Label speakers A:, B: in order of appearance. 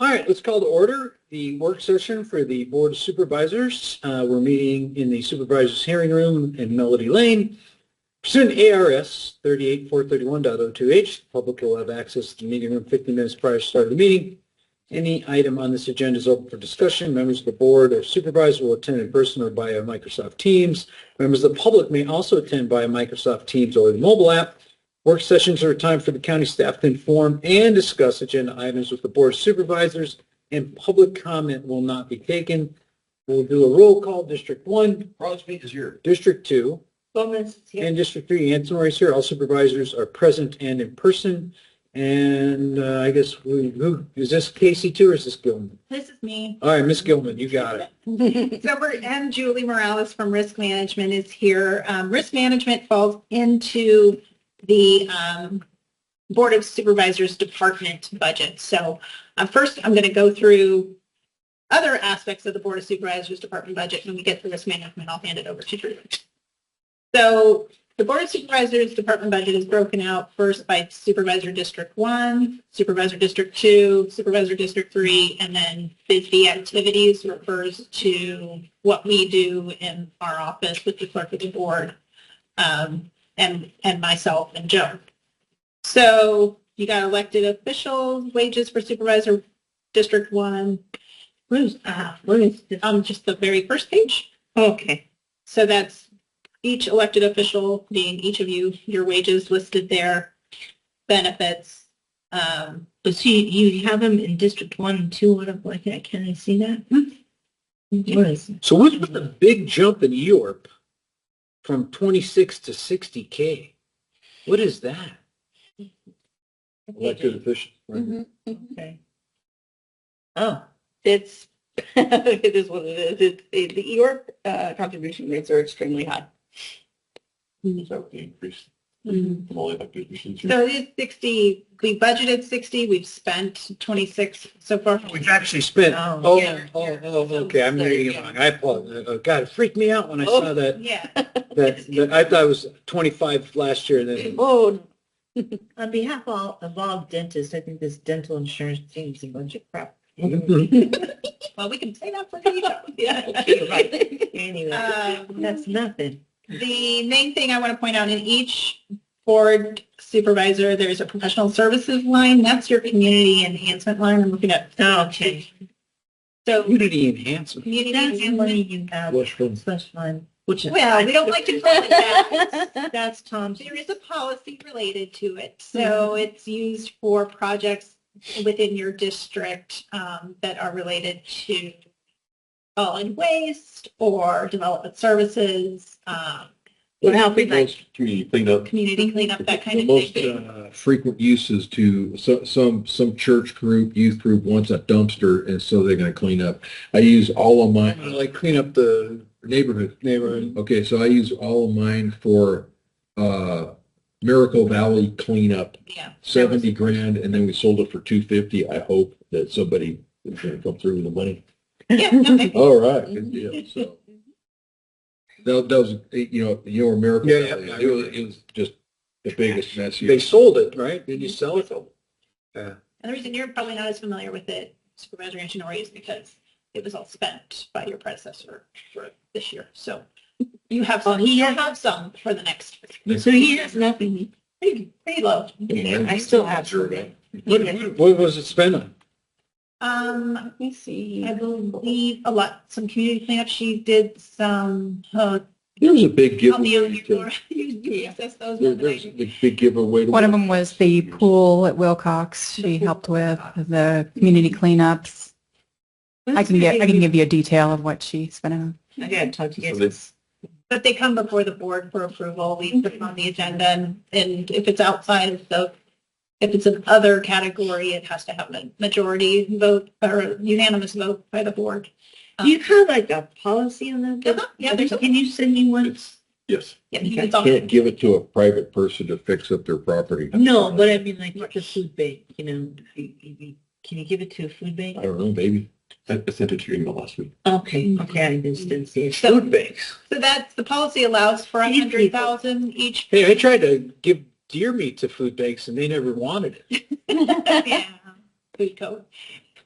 A: right, let's call to order the work session for the Board of Supervisors. Uh, We're meeting in the Supervisors Hearing Room in Melody Lane. Pursuant to ARS 38431.02H, the public will have access to the meeting room 15 minutes prior to start of the meeting. Any item on this agenda is open for discussion. Members of the Board or Supervisor will attend in person or via Microsoft Teams. Members of the public may also attend via Microsoft Teams or the mobile app. Work sessions are a time for the county staff to inform and discuss agenda items with the board of supervisors, and public comment will not be taken. We'll do a roll call. District one,
B: Crosby is here.
A: District two,
C: Gomez is here.
A: and District three, Anson is here. All supervisors are present and in person. And uh, I guess we, who, is this Casey too, or is this Gilman?
C: This is me.
A: All right, Miss Gilman, you got it.
C: So we're, and Julie Morales from Risk Management is here. Um, Risk Management falls into the um, Board of Supervisors Department budget. So uh, first, I'm going to go through other aspects of the Board of Supervisors Department budget. When we get to Risk Management, I'll hand it over to Julie. So the Board of Supervisors Department budget is broken out first by Supervisor District 1, Supervisor District 2, Supervisor District 3, and then busy activities refers to what we do in our office with the clerk of the board um, and, and myself and Joe. So you got elected officials, wages for Supervisor District 1. Where's, uh, where is, um, just the very first page? Okay. So that's each elected official, being each of you, your wages listed there, benefits. Um,
D: But see, you have them in District One and Two, what, if- like, that? can I see that?
C: Hmm?
D: What is it?
A: So what's with the big jump in E Europe from 26 to 60K? What is that? Elected official.
C: Mm-hmm.
D: Okay. Oh,
E: It's, it is what it is. It's, it- the
C: E
E: EOR uh, contribution rates are extremely high.
B: Is that the increase
D: Mm-hmm.
C: so
B: from all elected officials here?
C: it is sixty, we budgeted sixty, we've spent twenty-six so far.
A: We've actually spent,
D: Oh,
A: oh,
C: yeah.
A: oh, oh, okay, I'm reading it wrong. I apologize. Oh, God, it freaked me out when I saw that,
C: Yeah,
A: that, that- I thought it was 25 last year and then,
E: Oh,
D: on behalf of all, of all dentists, I think this dental insurance thing is a bunch of crap.
C: well, we can say that for you. Yeah.
D: Okay, right. Anyway,
C: Um,
D: that's nothing.
C: The main thing I want to point out in each board supervisor, there's a professional services line. That's your community enhancement line. I'm looking at.
D: Okay.
C: So
A: community enhancement.
C: community
D: That's the money
C: enhancement.
D: you have,
A: What's from-
D: slush fund, which.
C: Well, we don't like to call it that.
D: That's Tom's.
C: There is a policy related to it. So it's used for projects within your district um, that are related to solid waste or development services, um,
E: Well, now if we'd like-
B: Most Community cleanup.
C: community cleanup, that kind
B: The
C: of
B: most,
C: thing.
B: uh, Frequent uses to so, some, some church group, youth group wants a dumpster and so they're gonna clean up. I use all of
A: I'm gonna
B: mine,
A: like clean up the
B: neighborhood.
A: neighborhood.
B: Okay, so I use all of mine for, uh, Miracle Valley cleanup,
C: Yeah.
B: seventy grand, and then we sold it for two fifty. I hope that somebody is gonna come through with the money.
C: Yeah, no, I-
B: All right, good deal, so. That, that was, you know, your miracle.
A: Yeah, yeah.
B: Valley. It was, it was just the biggest mess.
A: They
B: you-
A: sold it, right? Did you sell it?
C: And the reason you're probably not as familiar with it, Supervisor Antonori, is because it was all spent by your predecessor for this year. So you have some, you have some for the next,
D: So he has nothing.
C: pretty, pretty low.
D: I still have.
B: Survey.
A: What, what- what was it spent on?
C: Um,
E: let me see.
C: I believe a lot, some community cleanup. She did some, uh,
B: There was a big
C: I'll be
B: giveaway.
C: you,
B: to-
C: you access those.
B: There, there's a big giveaway.
F: One of them was the pool at Wilcox. She helped with the community cleanups. I can get, I can give you a detail of what she spent on.
D: I gotta talk to you
B: So
D: guys.
C: But they come before the board for approval. We put them on the agenda and, and if it's outside of the, if it's an other category, it has to have a majority vote or unanimous vote by the board.
D: Do you have like a policy on that?
C: Uh-huh, Yeah, there's, a-
D: Can you send me one?
B: It's- Yes.
C: yeah,
B: You
C: it's on-
B: can't give it to a private person to fix up their property.
D: No, but I mean, like, like a food bank, you know, you- you- you- can you give it to a food bank?
B: I don't know, maybe. I sent it to your email last week.
D: Okay, okay, I just didn't see it.
C: Food
D: banks.
C: so that's, the policy allows for a
D: Feed people.
C: hundred thousand each.
A: Hey, I tried to give deer meat to food banks and they never wanted it.
C: Yeah, Food code.